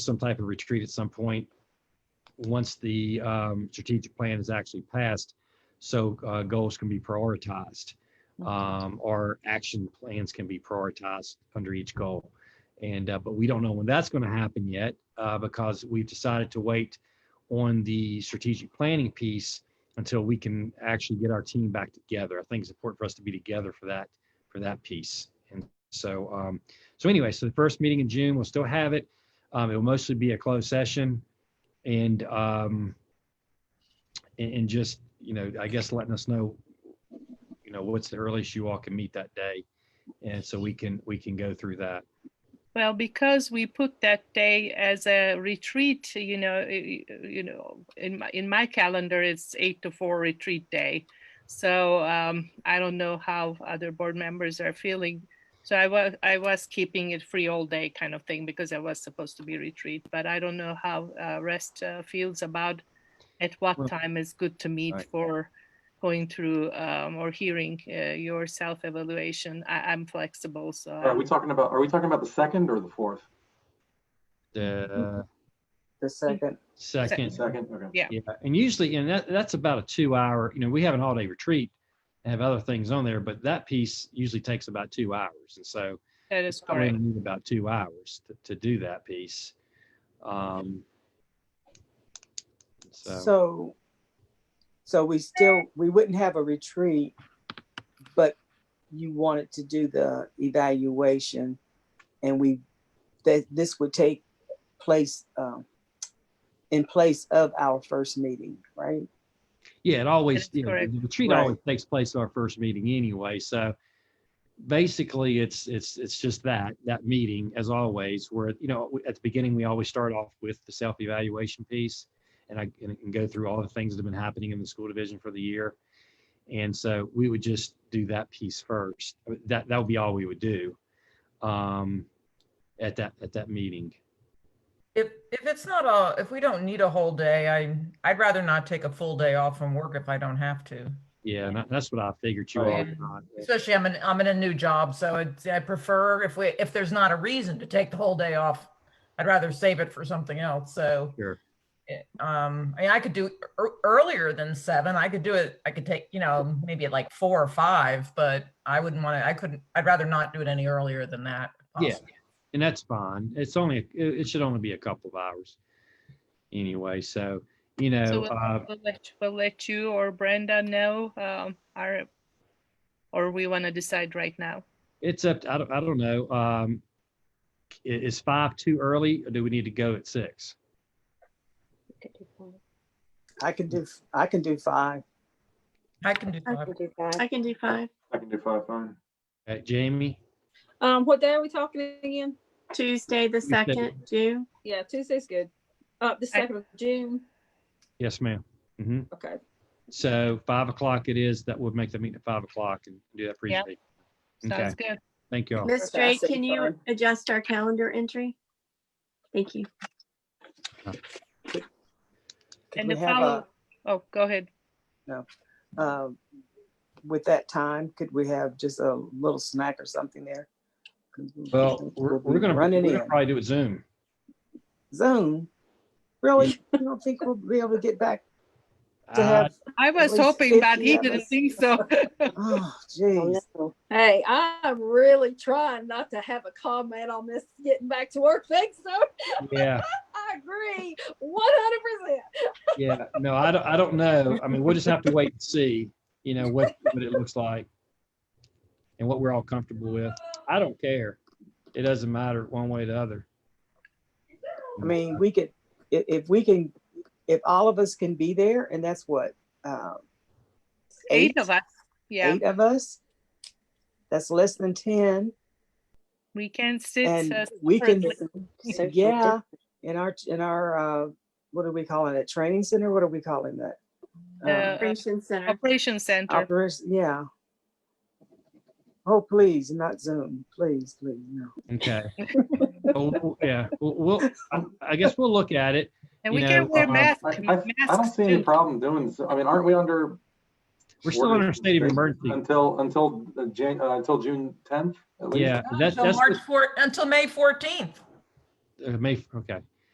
some type of retreat at some point, once the um, strategic plan is actually passed, so uh, goals can be prioritized, um, or action plans can be prioritized under each goal. And, uh, but we don't know when that's going to happen yet, uh, because we've decided to wait on the strategic planning piece until we can actually get our team back together. I think it's important for us to be together for that, for that piece. And so, um, so anyway, so the first meeting in June, we'll still have it. Um, it will mostly be a closed session and, um, and, and just, you know, I guess letting us know, you know, what's the earliest you all can meet that day. And so we can, we can go through that. Well, because we put that day as a retreat, you know, i- i- you know, in my, in my calendar, it's eight to four retreat day. So um, I don't know how other board members are feeling. So I was, I was keeping it free all day kind of thing because I was supposed to be retreat, but I don't know how uh, rest uh, feels about at Well- what time is good to meet Right. for going through um, or hearing uh, your self-evaluation. I, I'm flexible, so. Are I'm- we talking about, are we talking about the second or the fourth? The The second, second. Second, okay. Yeah. Yeah, and usually, and that, that's about a two hour, you know, we have an all day retreat and have other things on there, but that piece usually takes about two hours. And so That is I really correct. need about two hours to, to do that piece. Um, so, so, so we still, we wouldn't have a retreat, but you wanted to do the evaluation and we, that this would take place, um, in place of our first meeting, right? yeah, it always, That's you know, correct. the retreat Right. always takes place at our first meeting anyway. So basically it's, it's, it's just that, that meeting as always, where, you know, at the beginning, we always start off with the self-evaluation piece. And I and and go through all the things that have been happening in the school division for the year. And so we would just do that piece first. I mean, That, that would be all we would do um, at that, at that meeting. If, if it's not a, if we don't need a whole day, I, I'd rather not take a full day off from work if I don't have to. Yeah, and that- that's what I figured you Oh, all yeah. would not. Especially I'm in, I'm in a new job, so it's, I prefer if we, if there's not a reason to take the whole day off, I'd rather save it for something else, so. Sure. it- Um, I mean, I could do ear- earlier than seven, I could do it, I could take, you know, maybe at like four or five, but I wouldn't want to, I couldn't, I'd rather not do it any earlier than that. if Yeah. possible. And that's fine. It's only, it, it should only be a couple of hours. Anyway, so, you know, So uh, we'll- we'll let- We'll let you or Brenda know, um, our, or we want to decide right now. it's up, I don't, I don't know. Um, i- is five too early or do we need to go at six? I can do, I can do five. I can do I five. can do five. I can do five. I can do five, fine. Uh, Jamie? Um, what day are we talking again? Tuesday, the Tuesday. second, June. Yeah, Tuesday's good. Uh, the second of June. Yes, ma'am. hmm Okay. So five o'clock it is, that would make the meeting at five o'clock and do that Yeah. presentation. Okay, Sounds good. thank you all. Miss Okay, I Drake, see can you fine. adjust our calendar entry? Thank you. Could And we the have a- follow, oh, go ahead. um, With that time, could we have just a little snack or something there? 'Cause we- Well, we're, we're gonna, we're Running gonna in. probably do it Zoom. Zoom? Really? You don't think we'll be able to get back to I- have, I was least hoping, but 50 he of didn't us. think so. oh, geez. Hey, I'm really trying not to have a comment on this getting back to work thing, so Yeah. I agree one hundred percent. Yeah, no, I don't, I don't know. I mean, we'll just have to wait and see, you know, what, what it looks like and what we're all comfortable with. I don't care. It doesn't matter one way or the other. I mean, we could, if, if we can, if all of us can be there, and that's what, uh, Eight of us. Yeah, Eight of us? That's less than ten, we can sit. uh, and um, we can, separately. yeah, in our, in our, uh, what are we calling it, training center, what are we calling that? The- Um, Operations Center. Operation Center. Operas, yeah. Oh, please, not Zoom, please, please, no. Okay. Oh, w- Yeah, we'll- we'll, I- I guess we'll look at it. And you we can know, wear um, masks. I, I, I don't masks see any too. problem doing, this. I mean, aren't we under? We're still under a state of emergency. Until, until, uh, Jan, uh, until June tenth? Yeah, that's, Until that's March four, until May fourteenth. what- uh, May, okay.